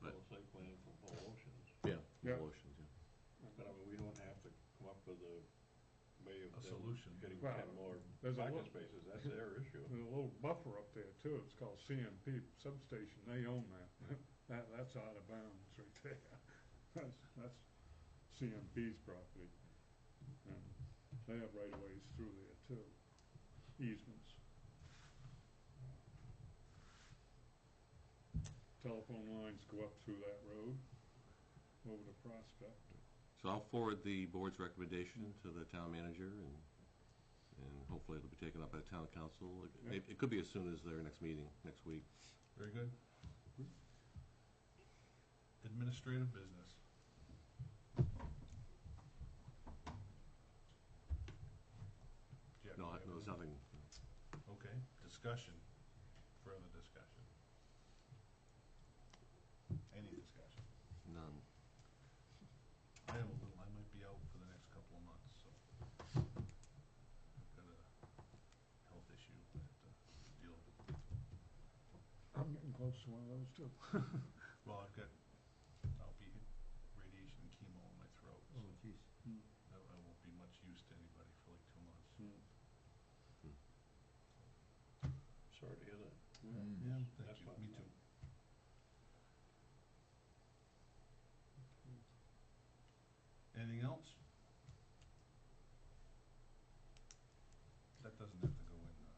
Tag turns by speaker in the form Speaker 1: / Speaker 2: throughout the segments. Speaker 1: But-
Speaker 2: Well, site plan for Paul Oceans,
Speaker 3: Yeah.
Speaker 4: Yeah.
Speaker 3: Motions, yeah.
Speaker 2: but I mean, we don't have to come up with a way of
Speaker 1: A
Speaker 2: them
Speaker 1: solution.
Speaker 2: getting
Speaker 4: Well,
Speaker 2: ten more
Speaker 4: there's a
Speaker 2: parking
Speaker 4: lo-
Speaker 2: spaces, that's their issue.
Speaker 4: There's a little buffer up there too, it's called CMP substation, they own that. That, that's out of bounds right there. That's, that's CMP's property. And They have right of ways through there too, easements. Telephone lines go up through that road, over to Prospect.
Speaker 3: So I'll forward the board's recommendation to the town manager, and, and hopefully it'll be taken up by the town council. It- It, it could be as soon as their next meeting, next week.
Speaker 1: Very good. Administrative business. Jeff,
Speaker 3: No, I- no,
Speaker 1: do you have
Speaker 3: there's nothing.
Speaker 1: any- Okay, discussion, further discussion. Any discussion.
Speaker 3: None.
Speaker 1: I am a little, I might be out for the next couple of months, so. I've got a health issue that, uh, deal with.
Speaker 4: I'm getting close to one of those too.
Speaker 1: Well, I've got, I'll be hit radiation and chemo in my throat, so
Speaker 2: Hmm.
Speaker 5: jeez.
Speaker 4: Hmm.
Speaker 1: I I won't be much use to anybody for like two months.
Speaker 2: Hmm. Sorry to hear that.
Speaker 5: Mm.
Speaker 1: Thank
Speaker 2: That's
Speaker 1: you,
Speaker 2: fine.
Speaker 1: me too. Anything else? That doesn't have to go in, uh,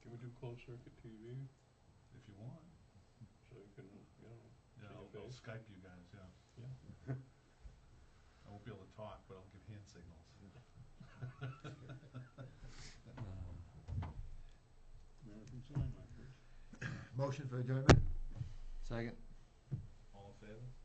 Speaker 2: Can we do closed circuit TV
Speaker 1: if you want,
Speaker 2: so you can, you know,
Speaker 1: yeah,
Speaker 2: See
Speaker 1: I'll
Speaker 2: your
Speaker 1: I'll
Speaker 2: face.
Speaker 1: Skype you guys, yeah.
Speaker 2: Yeah.
Speaker 1: I won't be able to talk, but I'll give hand signals.
Speaker 4: American Sign Language.
Speaker 5: Motion for adjournment? Second.
Speaker 1: All in favor?